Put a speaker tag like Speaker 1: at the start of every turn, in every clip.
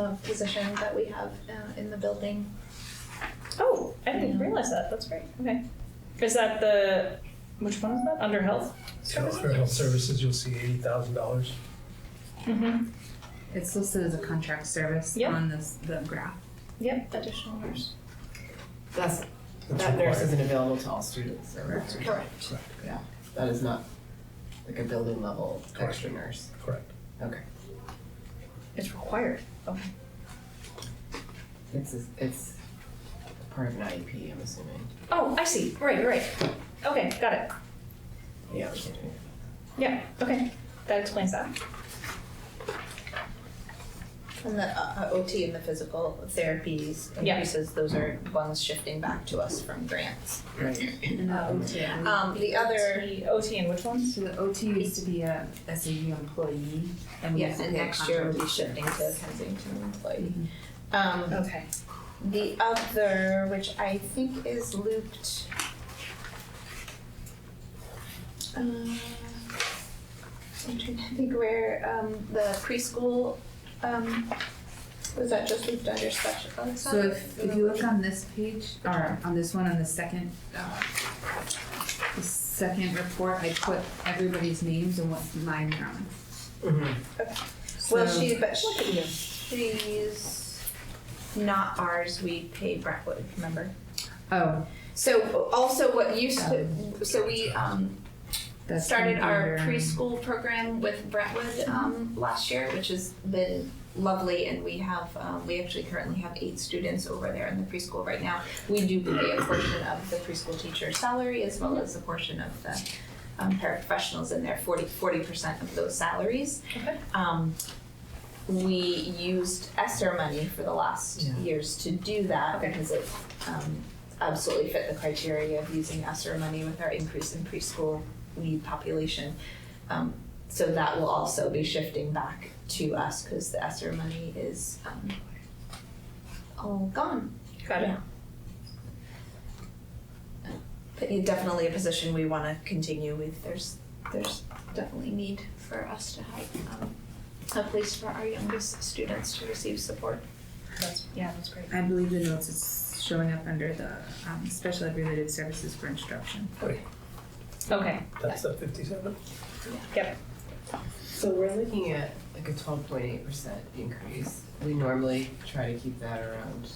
Speaker 1: uh, position that we have uh, in the building.
Speaker 2: Oh, I didn't realize that. That's great. Okay. Is that the which one is that? Under health?
Speaker 3: So for health services, you'll see eighty thousand dollars.
Speaker 2: Mm-hmm.
Speaker 4: It's listed as a contract service
Speaker 2: Yep.
Speaker 4: on this, the graph.
Speaker 2: Yep.
Speaker 1: Additional nurse.
Speaker 5: That's, that nurse isn't available to all students, or nurse-
Speaker 1: Correct.
Speaker 5: that is not like a building level
Speaker 3: Correct.
Speaker 5: extra nurse.
Speaker 3: Correct.
Speaker 5: Okay,
Speaker 2: It's required. Okay.
Speaker 5: it's, it's part of an IEP, I'm assuming.
Speaker 2: Oh, I see. Right, right. Okay, got it.
Speaker 5: Yeah, we can do it.
Speaker 2: Yeah. Okay. That explains that.
Speaker 6: And the uh, uh, OT and the physical therapies
Speaker 2: Yeah.
Speaker 6: increases, those are ones shifting back to us from grants.
Speaker 5: Right,
Speaker 4: And the
Speaker 6: Um,
Speaker 4: OT.
Speaker 6: Um, the other,
Speaker 2: The OT and which ones?
Speaker 4: So the OT used to be a SAU employee and we
Speaker 6: yeah,
Speaker 4: used to
Speaker 6: and
Speaker 4: pay a
Speaker 6: next year we'll be
Speaker 4: contract
Speaker 6: shifting to
Speaker 4: service.
Speaker 6: Kensington employee. Um,
Speaker 2: Okay.
Speaker 6: the other, which I think is looped. Uh, I'm trying to think where, um, the preschool, um, was that just looped under special?
Speaker 4: So if, if you look on this page, or on this one, on the second, uh, the second report, I put everybody's names and what mine are on.
Speaker 6: Mm-hmm. Well,
Speaker 4: So-
Speaker 6: she, but she, she's not ours, we pay Brentwood, remember?
Speaker 4: Oh,
Speaker 6: So also what used to, so we, um,
Speaker 4: that's.
Speaker 6: started our
Speaker 4: under- um,
Speaker 6: preschool program with Brentwood, um, last year, which has been lovely, and we have, um, we actually currently have eight students over there in the preschool right now. We do pay a portion of the preschool teacher's salary as well as a portion of the, um, paraprofessionals in there, forty, forty percent of those salaries
Speaker 2: Okay.
Speaker 6: um, we used ESSER money for the last
Speaker 5: Yeah.
Speaker 6: years to do that
Speaker 2: Okay.
Speaker 6: because it um, absolutely fit the criteria of using ESSER money with our increase in preschool need population. Um, so that will also be shifting back to us because the ESSER money is um, all gone.
Speaker 2: Got it.
Speaker 6: Yeah. But it- definitely a position we want to continue with. There's there's definitely need for us to have um, a place for our youngest students to receive support.
Speaker 2: That's yeah. That's great.
Speaker 4: I believe the notes is showing up under the, um, special ed related services for instruction.
Speaker 2: Okay.
Speaker 3: That's the fifty-seven.
Speaker 5: so we're looking at like a twelve point eight percent increase. We normally try to keep that around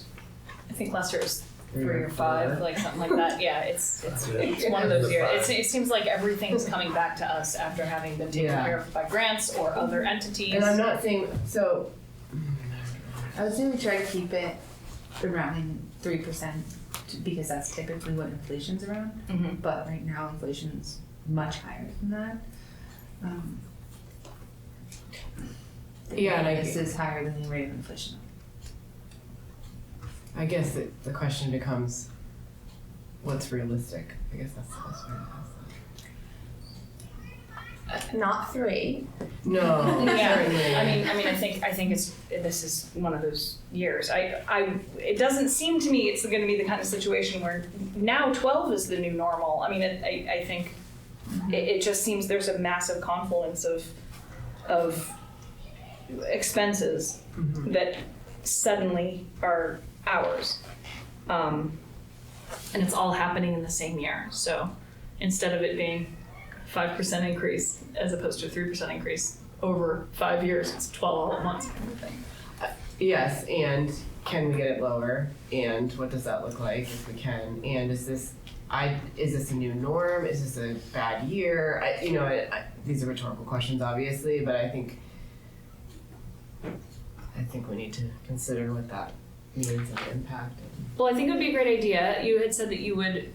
Speaker 2: I think last year was
Speaker 5: three or
Speaker 2: five,
Speaker 5: four.
Speaker 2: like something like that. Yeah. It's it's,
Speaker 3: Yeah.
Speaker 2: it's one of those years.
Speaker 3: Five.
Speaker 2: It's, it seems like everything's coming back to us after having been taken
Speaker 5: Yeah.
Speaker 2: care of by grants or other entities.
Speaker 5: And I'm not saying, so,
Speaker 4: I would say we try to keep it around three percent, because that's typically what inflation's around.
Speaker 5: Mm-hmm.
Speaker 2: Mhm.
Speaker 4: But right now, inflation's much higher than that. Um, the
Speaker 5: Yeah, and I
Speaker 4: This
Speaker 5: get-
Speaker 4: is higher than the rate of inflation.
Speaker 5: I guess the, the question becomes, what's realistic? I guess that's the best way to ask that.
Speaker 6: Not three.
Speaker 5: No,
Speaker 2: Yeah,
Speaker 5: certainly.
Speaker 2: I mean, I mean, I think, I think it's, this is one of those years. I, I, it doesn't seem to me it's gonna be the kind of situation where now twelve is the new normal. I mean, it, I, I think it, it just seems there's a massive confluence of, of expenses
Speaker 5: Mhm.
Speaker 2: that suddenly are ours. Um, and it's all happening in the same year, so instead of it being five percent increase as opposed to a three percent increase over five years. It's twelve all at once kind of thing.
Speaker 5: Yes, and can we get it lower? And what does that look like if we can? And is this, I, is this a new norm? Is this a bad year? I, you know, I, I, these are rhetorical questions, obviously, but I think, I think we need to consider what that means and impact.
Speaker 2: Well, I think it would be a great idea. You had said that you would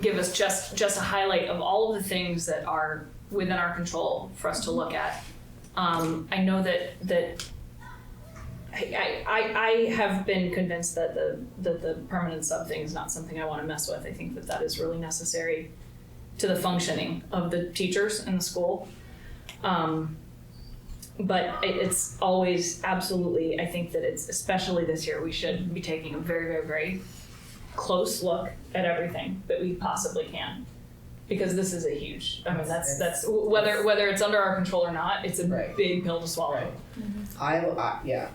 Speaker 2: give us just just a highlight of all of the things that are within our control for us to look at. Um, I know that that I, I, I have been convinced that the that the permanent sub thing is not something I want to mess with. I think that that is really necessary to the functioning of the teachers in the school. Um, but it, it's always absolutely. I think that it's especially this year we should be taking a very very very close look at everything that we possibly can because this is a huge i mean that's that's whether whether it's under our control or not it's a
Speaker 5: Right.
Speaker 2: big pill to swallow
Speaker 5: I, I, yeah,